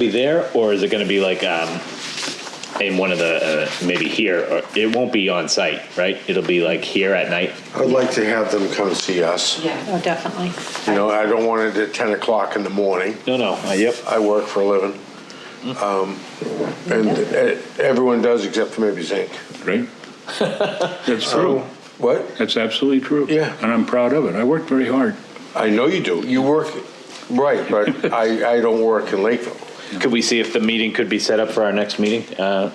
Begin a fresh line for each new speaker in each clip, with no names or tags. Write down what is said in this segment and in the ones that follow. be there, or is it going to be like um, in one of the uh, maybe here? Or it won't be on site, right? It'll be like here at night.
I'd like to have them come see us.
Yeah,
Oh, definitely.
You know, I don't want it at 10 o'clock in the morning.
No, no. Uh, yep.
I work for a living. Um, And eh, everyone does except for maybe Zink.
Right? That's true.
What?
That's absolutely true.
Yeah.
And I'm proud of it. I worked very hard.
I know you do. You work, right, but I, I don't work in Lakeville.
Could we see if the meeting could be set up for our next meeting, uh,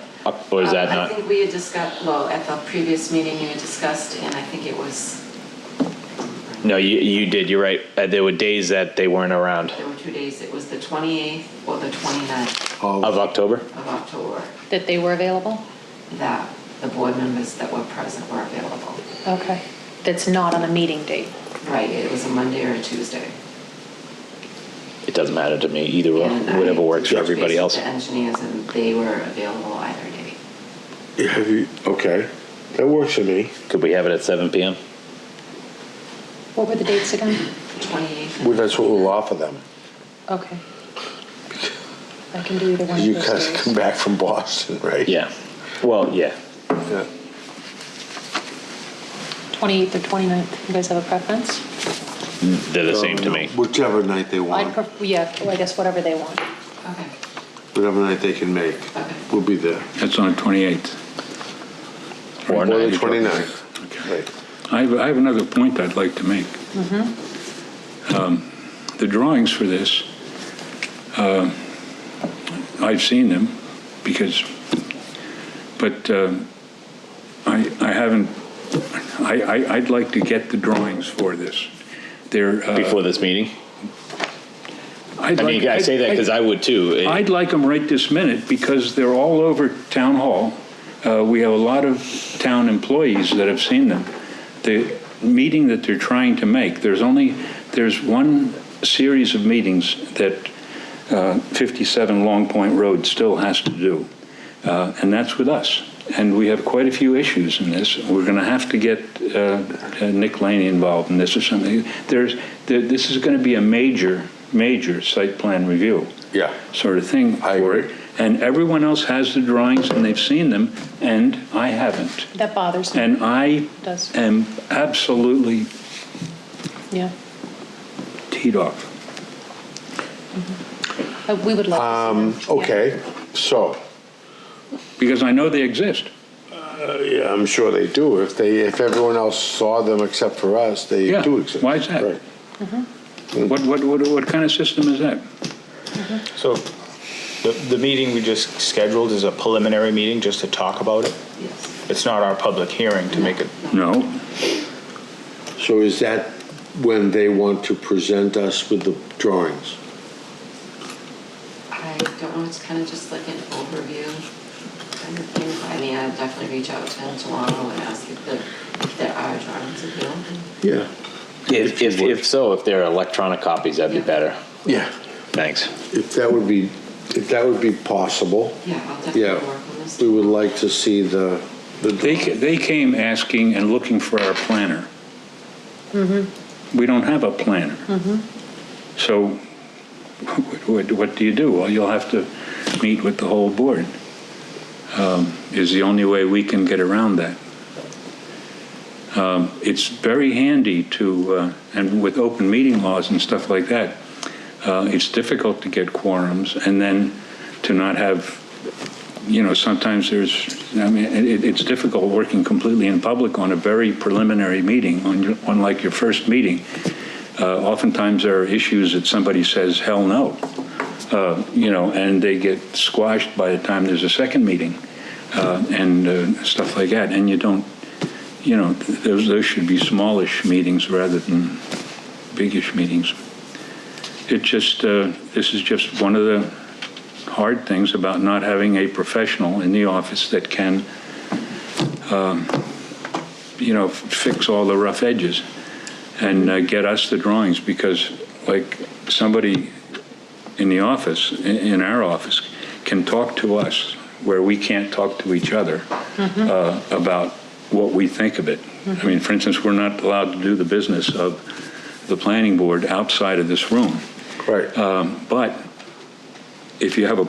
or is that
Um, I
not?
think we had discussed, well, at the previous meeting, you had discussed, and I think it was,
No, you you did. You're right. Uh, there were days that they weren't around
there were two days, it was the 28th or the 29th
of October.
of October,
That they were available?
that the board members that were present were available.
Okay. That's not on a meeting date.
Right, it was a Monday or a Tuesday.
It doesn't matter to me either. or
And I
whatever works for
touched base
everybody
with
else.
The engineers, and they were available either day.
Have you, okay, that works for me.
Could we have it at 7 p.m.?
What were the dates again?
28th.
Well, that's what we'll offer them.
Okay. I can do either one
You
of
guys
those
come
days.
back from Boston, right?
Yeah. Well, yeah.
Yeah.
28th or 29th, you guys have a preference?
They're the same to me.
Um, Whichever night they
I'd,
want,
pref- yeah, well, I guess whatever they want.
Okay,
whatever night they can make,
okay.
we'll be there.
That's on the 28th.
Or
Or the
not.
29th. Right.
I have, I have another point I'd like to make. Um, The drawings for this, uh, I've seen them because, but um, I, I haven't, I, I, I'd like to get the drawings for this. They're. uh,
Before this meeting?
I'd
I
like-
mean, I say that because I would too. It-
I'd like them right this minute because they're all over town hall. Uh, We have a lot of town employees that have seen them. The meeting that they're trying to make, there's only, there's one series of meetings that uh, 57 Long Point Road still has to do, Uh, and that's with us. And we have quite a few issues in this. We're going to have to get uh, uh, Nick Laney involved in this or something. There's, there- this is going to be a major, major site plan review
Yeah.
sort of thing
I
for it.
agree.
And everyone else has the drawings and they've seen them, and I haven't.
That bothers me.
And I
Does.
am absolutely
Yeah.
teed off.
Uh, We would love to see them. Yeah.
Um, Okay, so,
Because I know they exist.
uh, yeah, I'm sure they do. If they, if everyone else saw them except for us, they
Yeah,
do exist.
why is that?
Right. Hmm.
What, what, what, what kind of system is that?
So the, the meeting we just scheduled is a preliminary meeting just to talk about it?
Yes.
It's not our public hearing to make it,
No,
So is that when they want to present us with the drawings?
I don't know, it's kind of just like an overview kind of thing. I mean, I'd definitely reach out to him tomorrow and ask if there, if there are drawings available.
Yeah.
If, if, if so, if there are electronic copies, that'd be
Yeah.
better.
Yeah,
Thanks.
if that would be, if that would be possible,
Yeah, I'll
Yeah.
definitely work on this.
we would like to see the, the
they, ca-
drawings.
they came asking and looking for our planner. We don't have a planner. So what- what, what do you do? Well, you'll have to meet with the whole board, um, is the only way we can get around that. Um, It's very handy to, uh, and with open meeting laws and stuff like that, uh, it's difficult to get quorums and then to not have, you know, sometimes there's, I mean, it, it's difficult working completely in public on a very preliminary meeting, on your, on like your first meeting. Uh, oftentimes there are issues that somebody says, hell no, uh, you know, and they get squashed by the time there's a second meeting, uh, and, uh, stuff like that, and you don't, you know, th- those, those should be smallish meetings rather than biggish meetings. It just, uh, this is just one of the hard things about not having a professional in the office that can, um, you know, f- fix all the rough edges and uh, get us the drawings, because like, somebody in the office, i- in our office, can talk to us where we can't talk to each other uh, about what we think of it. I mean, for instance, we're not allowed to do the business of the planning board outside of this room.
Right,
Um, But if you have a